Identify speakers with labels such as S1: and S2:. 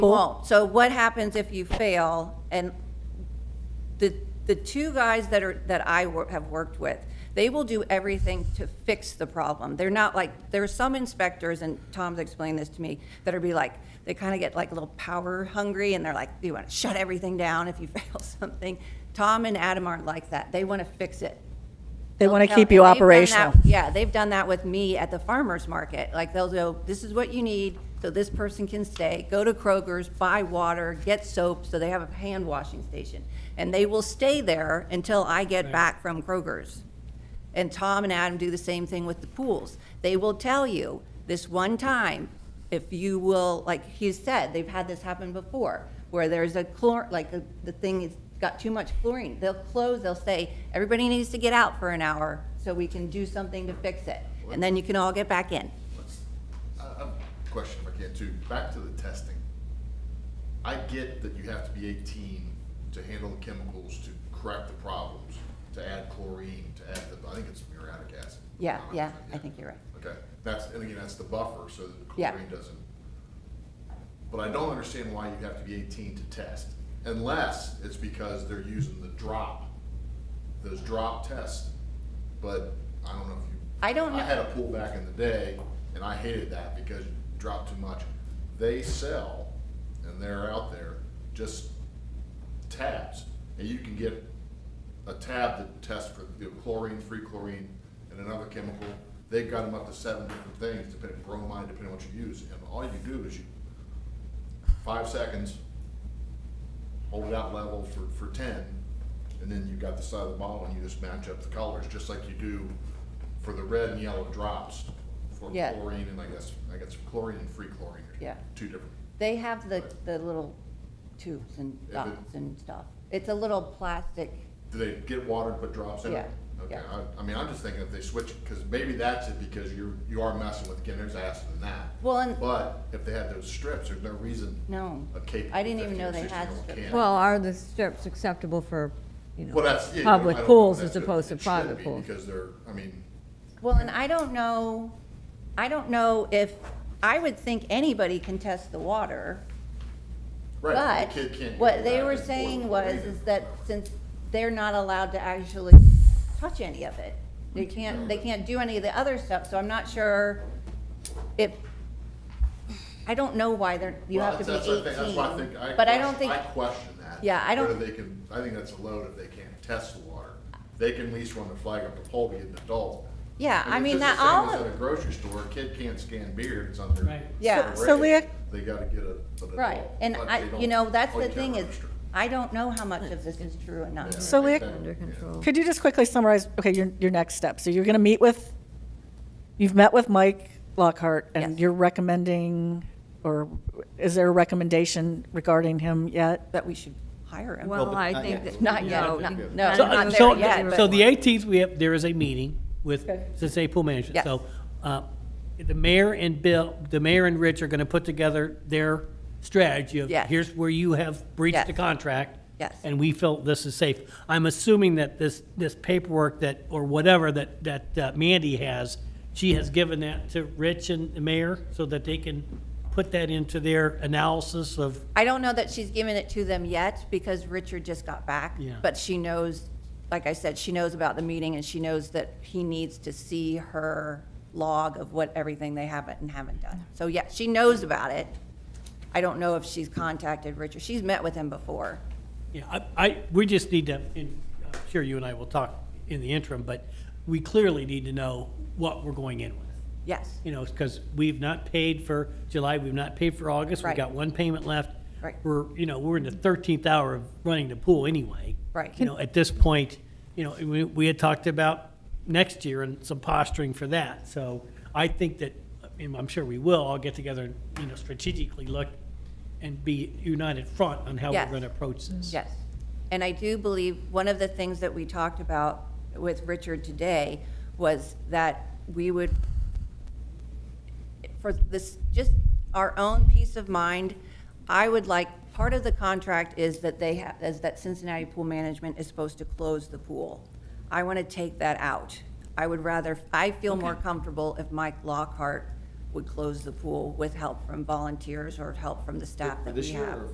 S1: won't. So what happens if you fail? And the, the two guys that are, that I wor- have worked with, they will do everything to fix the problem. They're not like, there are some inspectors, and Tom's explained this to me, that are be like, they kind of get like a little power hungry, and they're like, you want to shut everything down if you fail something. Tom and Adam aren't like that. They want to fix it.
S2: They
S1: They'll
S2: want to
S1: tell-
S2: keep you
S1: and they've done that-
S2: operational.
S1: Yeah, they've done that with me at the farmer's market. Like, they'll go, this is what you need, so this person can stay. Go to Kroger's, buy water, get soap, so they have a hand washing station. And they will stay there until I get back from Kroger's. And Tom and Adam do the same thing with the pools. They will tell you this one time, if you will, like he said, they've had this happen before, where there's a chlor, like the, the thing has got too much chlorine. They'll close, they'll say, everybody needs to get out for an hour so we can do something to fix it. And then you can all get back in.
S3: Let's- I I have a question if I can too. Back to the testing. I get that you have to be eighteen to handle the chemicals, to correct the problems, to add chlorine, to add the, I think it's muriatic acid.
S1: Yeah, yeah,
S3: Honestly,
S1: I think you're right.
S3: Okay, that's, and again, that's the buffer so that the
S1: Yeah.
S3: chlorine doesn't. But I don't understand why you have to be eighteen to test unless it's because they're using the drop, those drop tests. But I don't know if you.
S1: I don't
S3: I
S1: know.
S3: had a pool back in the day and I hated that because you drop too much. They sell and they're out there just tabs and you can get a tab that tests for you know, chlorine, free chlorine, and another chemical. They've got them up to seven different things, depending bromide, depending on what you use. And all you do is you five seconds, hold it out level for, for ten, and then you've got the side of the bottle and you just match up the colors, just like you do for the red and yellow drops for
S1: Yeah.
S3: chlorine and I guess, I guess chlorine and free chlorine. are
S1: Yeah.
S3: Two different.
S1: They have the, the little tubes and
S3: it-
S1: dots and stuff. It's a little plastic,
S3: Do they get water and put drops in it?
S1: Yeah,
S3: Okay,
S1: yeah.
S3: I, I mean, I'm just thinking if they switch, because maybe that's it, because you're, you are messing with, again, there's acid in that.
S1: Well, and-
S3: But if they had those strips, there's no reason
S1: no.
S3: a cape.
S1: I didn't even know they had
S3: 15 or 16 -year-old
S1: strips.
S3: can't.
S4: Well, are the strips acceptable for, you
S3: Well,
S4: know,
S3: that's, yeah, you know, I
S4: public
S3: don't know if
S4: pools
S3: that's
S4: as
S3: good.
S4: opposed to
S3: It should
S4: private
S3: be,
S4: pools?
S3: Because they're, I mean,
S1: Well, and I don't know, I don't know if, I would think anybody can test the water,
S3: right,
S1: but
S3: the kid can't.
S1: what
S3: go
S1: they
S3: back
S1: were
S3: and forth
S1: saying
S3: with
S1: was,
S3: either.
S1: is that since they're not allowed to actually touch any of it, they
S3: Mm-hmm.
S1: can't, they can't do any of the other stuff, so I'm not sure if, I don't know why they're, you
S3: Well,
S1: have to be
S3: that's- that's- That's why I think, I.
S1: eighteen. But I don't
S3: question-
S1: think,
S3: I question that.
S1: Yeah, I don't-
S3: Whether they can, I think that's a load if they can't test the water. They can at least run the flag up to pole, be an adult.
S1: yeah, I
S3: it's
S1: mean,
S3: just
S1: that
S3: the same
S1: all,
S3: as
S1: of
S3: At a grocery store, a kid can't scan beer, it's under.
S5: Right.
S1: Yeah.
S2: So- so
S3: regulated.
S2: Leah-
S3: They gotta get a, an adult.
S1: right, and
S3: but
S1: I,
S3: they don't-
S1: you know, that's
S3: oh, you
S1: the
S3: can't
S1: thing is,
S3: register.
S1: I don't know how much of this is true or not.
S3: Yeah, I think
S2: So Leah-
S3: that-
S4: Under
S3: yeah.
S4: control.
S2: Could you just quickly summarize, okay, your, your next step? So you're going to meet with, you've met with Mike Lockhart, and
S1: Yes.
S2: you're recommending, or is there a recommendation regarding him yet?
S1: That we should hire him.
S4: Well,
S6: but
S4: I
S6: not
S4: think
S6: yet.
S4: that.
S1: Not yet,
S4: no,
S1: not- no,
S4: not
S1: So-
S4: yet.
S1: there
S5: So-
S1: yet, but-
S5: So the 18th, we have, there is a meeting with
S2: Okay.
S5: Cincinnati Pool Management.
S1: Yes.
S5: So uh, the mayor and Bill, the mayor and Rich are going to put together their strategy of,
S1: Yes.
S5: here's where you have breached
S1: Yes.
S5: the contract.
S1: Yes.
S5: And we felt this is safe. I'm assuming that this, this paperwork that, or whatever that, that uh, Mandy has, she has given that to Rich and the mayor so that they can put that into their analysis of
S1: I don't know that she's given it to them yet because Richard just got back.
S5: Yeah.
S1: But she knows, like I said, she knows about the meeting and she knows that he needs to see her log of what everything they haven't and haven't done. So yeah, she knows about it. I don't know if she's contacted Richard. She's met with him before.
S5: Yeah, I, I, we just need to, and I'm sure you and I will talk in the interim, but we clearly need to know what we're going in with.
S1: Yes.
S5: You know, because we've not paid for July, we've not paid for August, we've
S1: Right.
S5: got one payment left.
S1: Right.
S5: We're, you know, we're in the thirteenth hour of running the pool anyway.
S1: Right.
S5: You know, at this point, you know, we, we had talked about next year and some posturing for that. So I think that, and I'm sure we will, all get together and, you know, strategically look and be united front on how we're
S1: Yes.
S5: going to approach this.
S1: Yes. And I do believe one of the things that we talked about with Richard today was that we would, for this, just our own peace of mind, I would like, part of the contract is that they have, is that Cincinnati Pool Management is supposed to close the pool. I want to take that out. I would rather, I feel more comfortable if Mike Lockhart would close the pool with help from volunteers or help from the staff that
S3: This
S1: we
S3: year
S1: have.
S3: or